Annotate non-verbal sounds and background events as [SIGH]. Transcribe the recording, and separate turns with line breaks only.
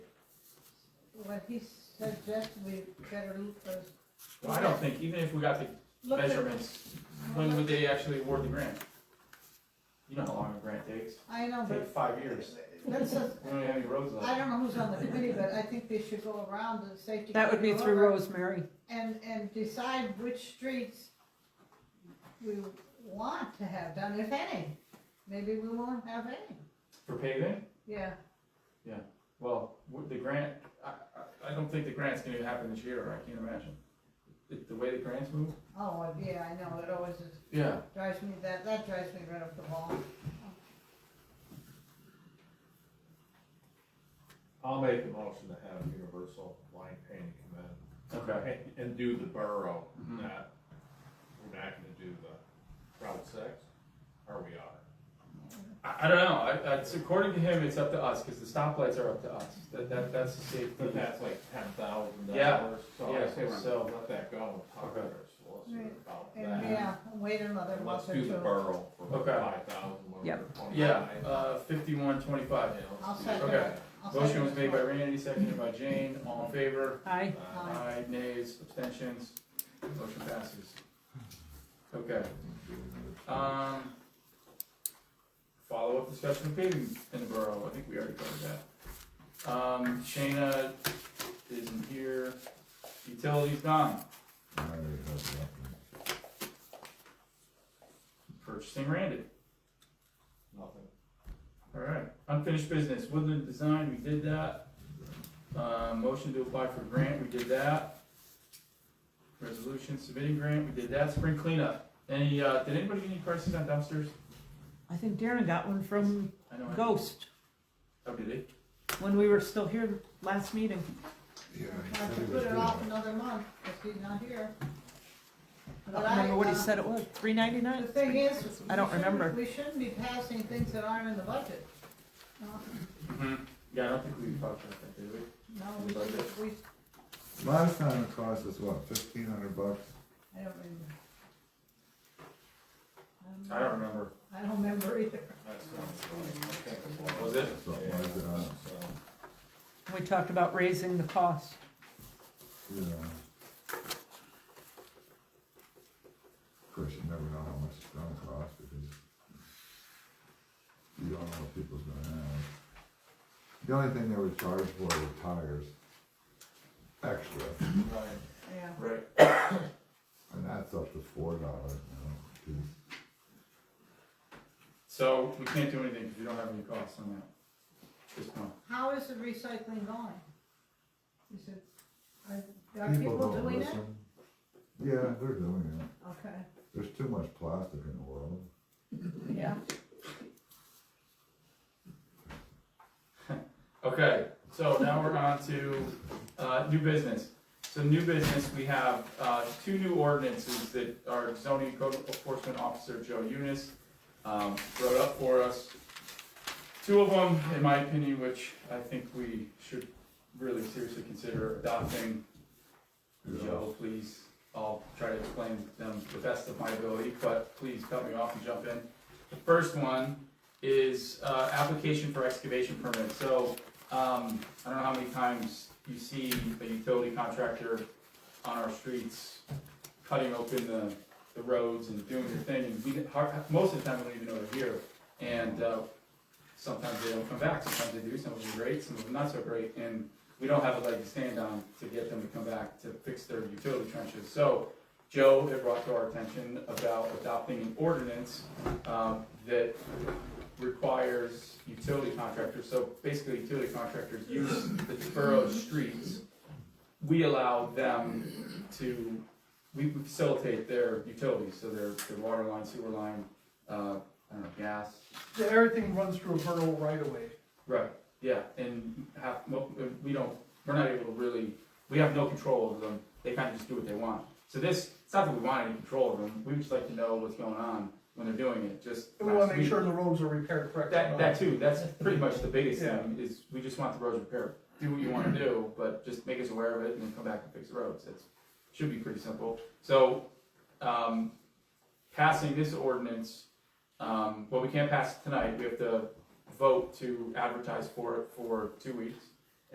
what he suggested, we better look those.
Well, I don't think, even if we got the
look at-
measurements, when would they actually award the grant? You know how long a grant takes,
I know,
take
but
five years,
let's just,
we don't even have any roads
I
left.
don't know who's on the committee, but I think they should go around the safety.
That would be
committee
through
over
Rosemary.
And, and decide which streets we want to have done, if any. Maybe we won't have any,
For paving,
yeah.
well, with the grant, I, I, I don't think the grant's gonna happen this year, I can't imagine. The, the way the grants move?
Oh, yeah, I know, it always is,
Yeah.
drives me, that, that drives me right up the wall.
I'll make a motion to have Universal Line Painting come
Okay.
in and- and do the borough,
Mhm.
not, we're not gonna do the Route Six, or we are.
I, I don't know, I, I, it's according to him, it's up to us, cause the stoplights are up to us, that, that, that's the safety.
But that's like ten thousand
Mm-hmm. Yeah,
dollars, so I
yeah,
say,
so-
so let that go, and talk to
Okay.
our solicitor about
And,
that.
yeah, wait another
And
month
let's
or
do the
two.
borough for
Okay.
five thousand, whatever, twenty-five.
Yeah, uh, fifty-one twenty-five.
I'll second
Okay.
I'll
Motion
second
was
this
made by
one.
Randy, seconded by Jane, all in favor?
Aye.
uh,
Aye.
Aye, nays, abstentions, motion passes. Okay. Um, follow-up discussion of paving in the borough, I think we already covered that. Um, Shayna isn't here, utilities gone,
I already heard that.
purchasing Randy,
Nothing.
alright. Unfinished business, woodland design, we did that. Uh, motion to apply for grant, we did that. Resolution submitting grant, we did that, spring cleanup. Any, uh, did anybody get any prices on dumpsters?
I think Darren got one from
I know. I-
Ghost
Oh, did he?
when we were still here last meeting.
Yeah,
I
he said
could
he
put
was
it
doing
off
it.
another month, if he's not here.
I
But
don't remember what he
uh,
said it was, three ninety-nine?
The thing is.
I don't
we shouldn't-
remember.
We shouldn't be passing things that aren't in the budget. No,
Mm-hmm. Yeah, I don't think we talked about that, did we?
No, we, should- we,
Last time it cost us what, fifteen hundred bucks?
I don't remember. Um,
I don't remember.
I don't remember [LAUGHS] either.
That's not, I think it's one
Was it?
Something like that,
so.
We talked about raising the cost.
you know. Of course, you never know how much it's gonna cost because you don't know what people's gonna have. The only thing they were charged for were tires, extra,
Right.
Yeah,
Right.
and that's up to four dollars now. 'cause
So we can't do anything because we don't have any costs on that. This one.
how is the recycling going? Is it, are, are people
don't
doing it?
listen. Yeah, they're doing it.
Okay,
There's too much plastic in the world.
Yeah.
Okay, so now we're on to, uh, new business. So new business, we have, uh, two new ordinances that our zoning code enforcement officer, Joe Eunice, um, wrote up for us. Two of them, in my opinion, which I think we should really seriously consider adopting. Joe, please, I'll try to explain them to the best of my ability, but please cut me off and jump in. The first one is, uh, application for excavation permit, so, um, I don't know how many times you see a utility contractor on our streets cutting open the, the roads and doing their thing, and we, har- most of the time, we don't even know they're here, and, uh, sometimes they don't come back, sometimes they do, some of them are great, some of them not so great, and we don't have a leg to stand on to get them to come back to fix their utility trenches. So Joe had brought to our attention about adopting an ordinance um, that requires utility contractors, so basically utility contractors use the borough's streets. We allow them to, we we facilitate their utilities, so their, their water line, sewer line, uh, I don't know, gas,
Yeah, everything runs through a borough right away.
Right, yeah, and have, mo- we don't, we're not able to really, we have no control over them, they kinda just do what they want. So this, it's not that we want any control over them, we just like to know what's going on when they're doing it, just.
And we wanna make sure the roads are repaired correctly.
That, that too, that's pretty much the biggest thing, is we just want the roads repaired, do what you wanna do, but just make us aware of it and then come back and fix the roads, that's, should be pretty simple. So, um, passing this ordinance, um, well, we can't pass it tonight, we have to vote to advertise for it for two weeks.